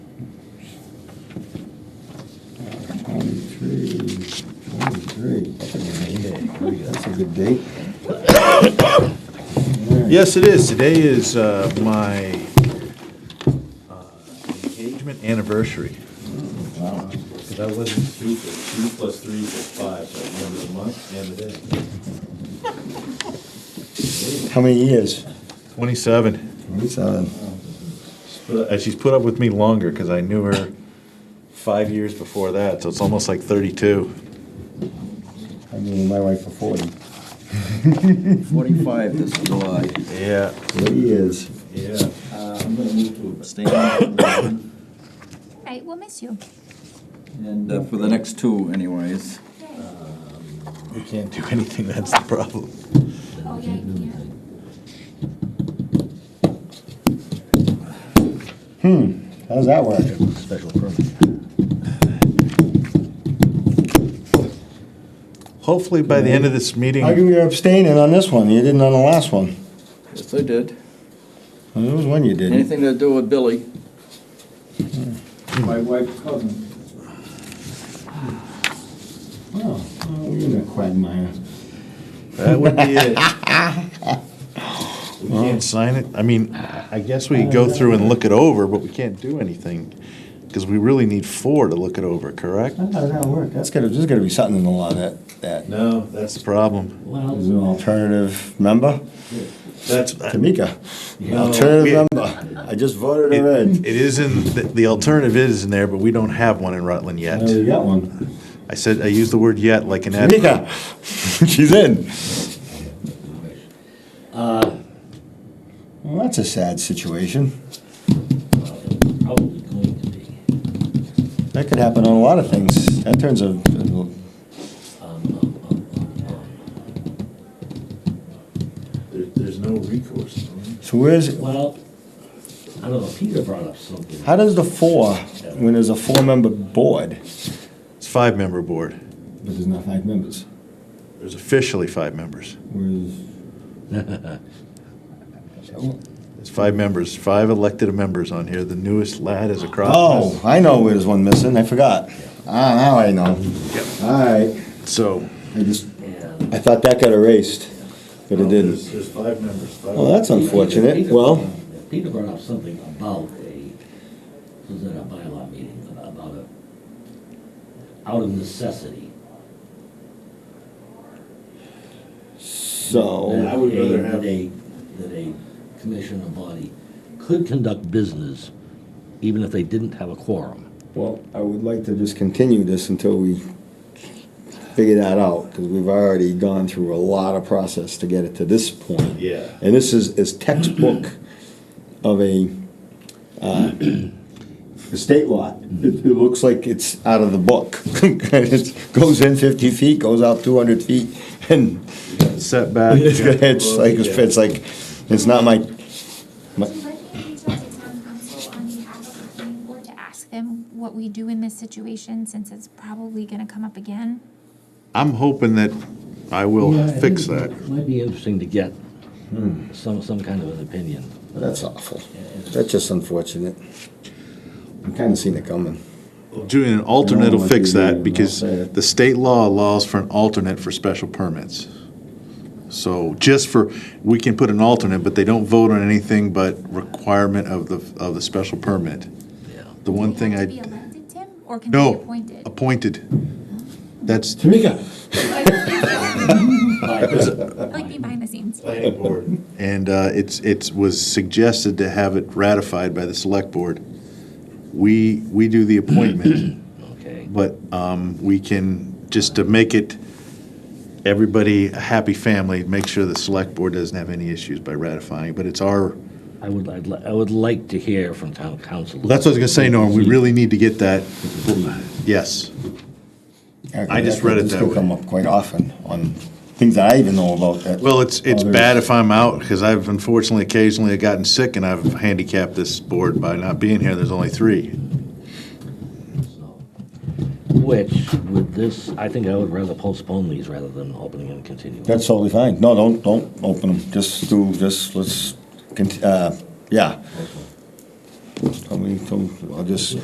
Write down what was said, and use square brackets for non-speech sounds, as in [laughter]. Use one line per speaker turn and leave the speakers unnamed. good date.
Yes, it is. Today is uh, my uh, engagement anniversary. Because I wasn't stupid. Two plus three equals five, so I remember the month and the day.
How many years?
Twenty-seven.
Twenty-seven.
Uh, She's put up with me longer because I knew her five years before that, so it's almost like thirty-two.
I knew my wife for forty.
45 this July.
Yeah,
Forty years.
yeah.
I'm going to move to abstain.
Right, we'll miss you.
And uh, for the next two anyways.
We can't do anything, that's the problem.
Oh, yeah, yeah.
How's that work?
Special permit. Hopefully, by the end of this meeting.
How come you're abstaining on this one? You didn't on the last one.
Yes, I did.
Well, There was one you didn't.
Anything to do with Billy.
My wife's cousin.
Oh, well, you're in a quagmire.
That would be it.
[laughs]
We can't sign it, I mean, I guess we could go through and look it over, but we can't do anything, because we really need four to look it over, correct?
How does that work? That's gotta, there's gotta be something in the law that, that
No, that's the problem.
is an alternative member.
That's,
Tamika,
No.
alternative member. I just voted her in.
it it is in, the- the alternative is in there, but we don't have one in Rutland
Oh, you
yet.
got one.
I said, I used the word yet like an adverb.
Tamika, she's in. Well, that's a sad situation.
probably going to be.
That could happen on a lot of things. That turns a,
Um, um, um, um, um.
There- There's no recourse.
so where's,
Well, I don't know, Peter brought up something.
how does the four, when there's a four-member board?
It's five-member board,
But there's not five members.
there's officially five members.
Whereas.
There's five members, five elected members on here, the newest lad is across.
Oh, I know where there's one missing. I forgot. Ah, now I know.
Yep.
All right.
So.
I just,
And
I thought that got erased, but it
There's-
didn't.
There's five members. five-
Well, that's unfortunate.
Peter-
Well,
Peter brought up something about a, was it a bylaw meeting, about a, out of necessity.
so.
I would
that a-
rather have-
That a, that a commission or body could conduct business even if they didn't have a quorum.
Well, I would like to just continue this until we figure that out, because we've already gone through a lot of process to get it to this point.
Yeah.
And this is, is textbook of a, [clears throat] uh, state law. It, it looks like it's out of the book. [laughs] It goes in fifty feet, goes out two hundred feet, and [laughs]
Setback. [laughs]
it's like, it's like, it's not my,
Would you like me to reach out to town council on behalf of the planning board to ask them what we do in this situation, since it's probably gonna come up again?
I'm hoping that I will
Yeah, I
fix
think
that.
It might be interesting to get hmm, some, some kind of an opinion.
that's awful. That's just unfortunate. I've kinda seen it coming.
Doing an alternate will
what you
fix
mean,
that
I'll
because
say it.
the state law allows for an alternate for special permits. So just for, we can put an alternate, but they don't vote on anything but requirement of the, of the special permit.
Yeah.
The one thing
Be
I,
elected, Tim, or can they be
no,
appointed?
appointed. That's.
Tamika,
Like be behind the scenes.
And uh, it's, it was suggested to have it ratified by the select board. We, we do the appointment.
Okay.
But um, we can, just to make it everybody a happy family, make sure the select board doesn't have any issues by ratifying, but it's our,
I would, I'd li- I would like to hear from town council.
that's what I was gonna say, Norm, we really need to get that, yes. I just read it
This
that
could
way.
come up quite often on things that I even know about that.
Well, it's, it's
others-
bad if I'm out, because I've unfortunately occasionally gotten sick and I've handicapped this board by not being here, there's only three.
So, Which, with this, I think I would rather postpone these rather than opening and continuing.
That's totally fine. No, don't, don't open them. Just do, just, let's, cont- uh, yeah. Tell me, tell, I'll just